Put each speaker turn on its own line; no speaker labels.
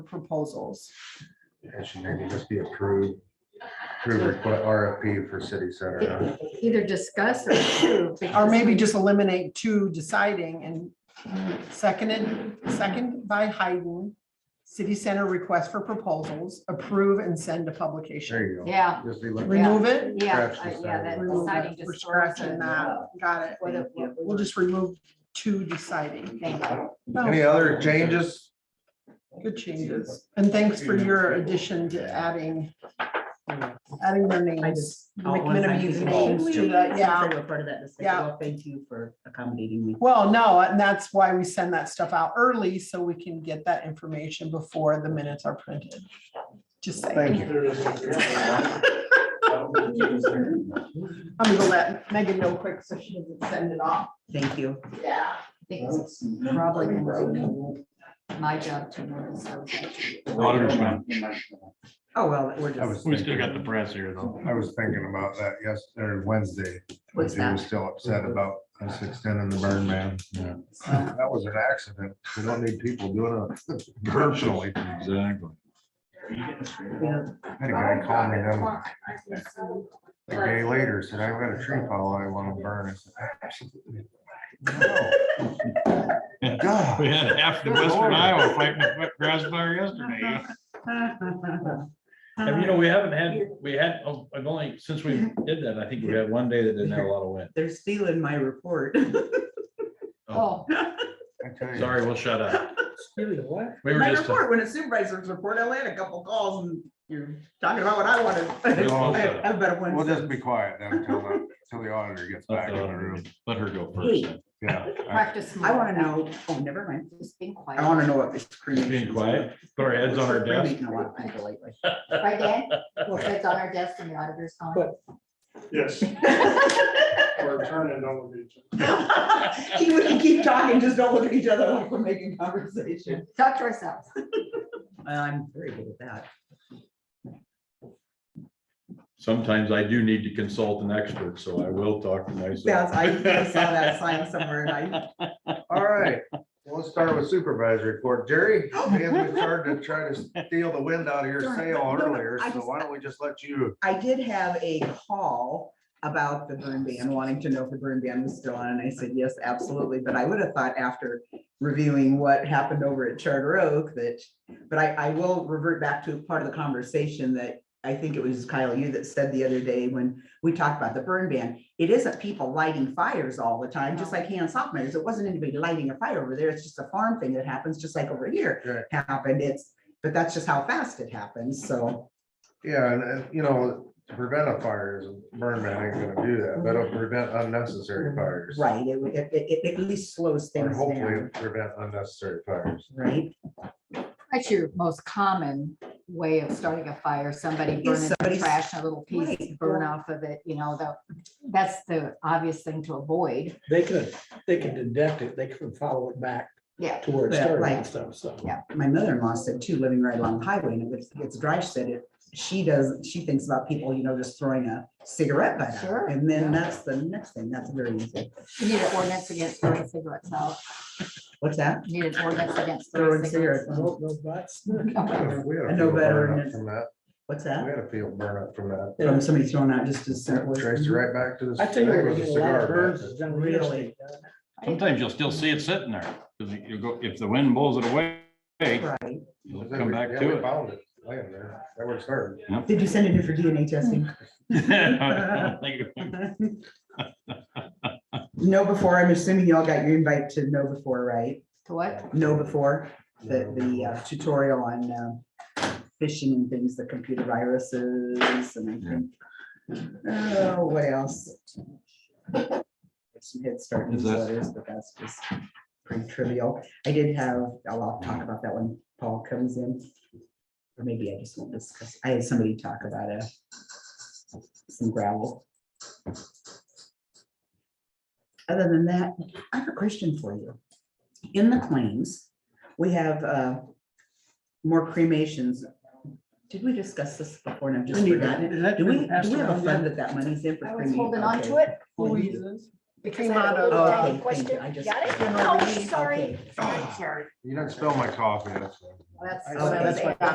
proposals.
It should maybe just be approved, approved request RFP for city center.
Either discuss or approve.
Or
because
maybe
we-
just eliminate two deciding and seconded, second by Hayden. City center request for proposals, approve and send to publication.
There you go.
Yeah.
Just be looking.
Remove it?
Yeah,
Scratch
I- yeah,
deciding.
that
Remove
deciding
it. We're
just. throws
scratching
it,
that.
uh,
Got it.
what it- what we
We'll
were
just remove two deciding.
thinking.
No,
Any other changes?
Good changes. And thanks for your addition to adding, adding their
I
names.
just. I'll wanna
McMenamin
thank you
names
all.
to that,
Since
yeah.
They were part of that discussion.
Yeah.
Well, thank you for accommodating me.
Well, no, and that's why we send that stuff out early so we can get that information before the minutes are printed. Just saying.
Thank you.
I'm gonna let Megan know quick so she doesn't send it off.
Thank you.
Yeah.
I think it's probably gonna be my job to notice. those.
Auditor's man.
Oh, well, we're
I was
just,
We still got the
thinking,
press here though.
I was thinking about that yesterday, Wednesday.
What's
She was
that?
still upset about us extending the burn ban.
So,
That was an accident. We don't need people doing it personally.
Exactly.
yeah,
Had a guy call me then
Oh,
a day later, said, I've got a tree fall I want to burn. I said, "Absolutely not." God.
We had half the western Iowa fighting a grass fire yesterday.
And you know, we haven't had, we had, oh, I've only, since we did that, I think we had one day that didn't have a lot of wind.
they're stealing my report.
Oh,
I tell you.
Sorry, we'll shut up. We were
My
just,
report, when a supervisor's report, I only had a couple calls and you're talking about what I wanted.
all
I
set.
have better ones.
We'll just be quiet then until, the- until the auditor gets back in the room.
let her go first.
Hey,
Yeah. I-
practice.
I want to
more.
know, oh, never mind.
Just being quiet.
I want to know what this cremation.
Being quiet, put our heads on our desk.
Right, Dan? Well, it's on our desk in the auditor's office.
Yes, or turn and don't look at each other.
He would keep talking, just don't look at each other like we're making conversation.
Talk to ourselves.
I'm very good at that.
Sometimes I do need to consult an expert, so I will talk to myself.
Yes, I I saw that sign somewhere and I
All right, well, let's start with supervisor report. Jerry, man, we started to try to steal the wind out of your
Darn,
sail
no, no,
earlier,
I
so
just-
why don't we just let you?
I did have a call about the burn ban, wanting to know if the burn ban was still on, and I said, yes, absolutely, but I would have thought after reviewing what happened over at Charter Oak that, but I, I will revert back to part of the conversation that I think it was Kyle, you that said the other day when we talked about the burn ban, it isn't people lighting fires all the time, just like hand soft measures. It wasn't anybody lighting a fire over there. It's just a farm thing that happens, just like over here happened. It's, but that's just how fast it happens, so.
Yeah, and, and, you know, to prevent a fire is, burn man ain't gonna do that, but it'll prevent unnecessary fires.
Right, it, would- it, it, it at least slows
Or
things
hopefully
down,
it'll prevent unnecessary fires.
right?
That's your most common way of starting a fire, somebody
Is
burning the
somebody's-
trash, a little piece
Right,
burn
or-
off of it, you know, the, that's the obvious thing to avoid.
They could, they could deduct it, they could follow it back
Yeah,
to where it
Yeah,
started
right.
and stuff, so.
My mother-in-law said too, living right along the highway, and it's, it's dry, said it, she does, she thinks about people, you know, just throwing a cigarette butt
Sure,
out. And then
yeah.
that's the next thing, that's very easy.
you need an ordinance against throwing cigarettes out,
What's that? Oh,
you need an ordinance against throwing
Throwing
cigarettes.
cigarettes.
I hope no butts.
Okay.
We had
I
a
know
field
better
burn
than
up
it's-
from that.
What's
We
that?
had a field burn up from that.
From somebody throwing out just as simple.
Traced it right back to the.
Mm-hmm. I tell you,
think it
we're
was a
getting a lot
cigar
of birds,
butt.
it's done
Really?
really.
Sometimes you'll still see it sitting there, because you go, if the wind blows it away,
Right.
you'll
Yeah,
come back
we
to it.
Found it, laying there, that was hard.
Did you send it in for DNA testing?
Like,
Know before, I'm assuming y'all got your invite to know before, right?
To what?
Know before, the, the uh, tutorial on uh, phishing and things, the computer viruses and I think. Oh, what else? Some head start
Is that-
newsletters, but that's just pretty trivial. I did have, I'll I'll talk about that when Paul comes in. Or maybe I just won't discuss, I had somebody talk about a some gravel. Other than that, I have a question for you. In the claims, we have uh, more cremations. Did we discuss this before and I've just forgotten it? Do we, do we have a fund that that money's in for?
I was
cremation?
holding on
Okay.
to it.
Louise's.
Between motto.
Oh,
uh,
okay,
Question?
thank you. I just-
Got it?
general
Oh,
relief.
sorry.
You didn't spill my coffee, that's. all.
That's,
Oh,
that's
that's
what